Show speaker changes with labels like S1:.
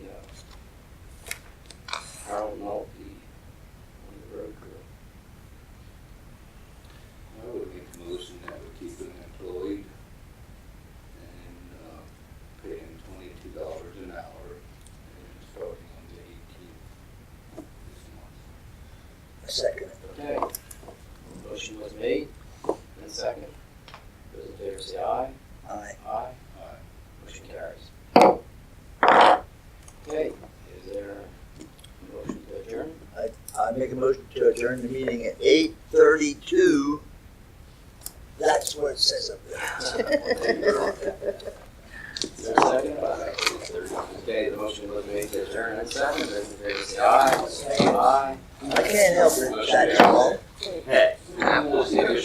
S1: uh, fifty dollars an hour, and starting on the eighteenth this month.
S2: I second it.
S3: Okay. Motion was made and second. Those in favor say aye.
S2: Aye.
S3: Aye.
S1: Aye.
S3: Motion carries. Okay, is there a motion to adjourn?
S2: I make a motion to adjourn the meeting at eight thirty-two. That's what it says up there.
S3: Is there a second? Okay, the motion was made to adjourn and second. Those in favor say aye. Aye.
S2: I can't help it, that's all.
S3: We'll see if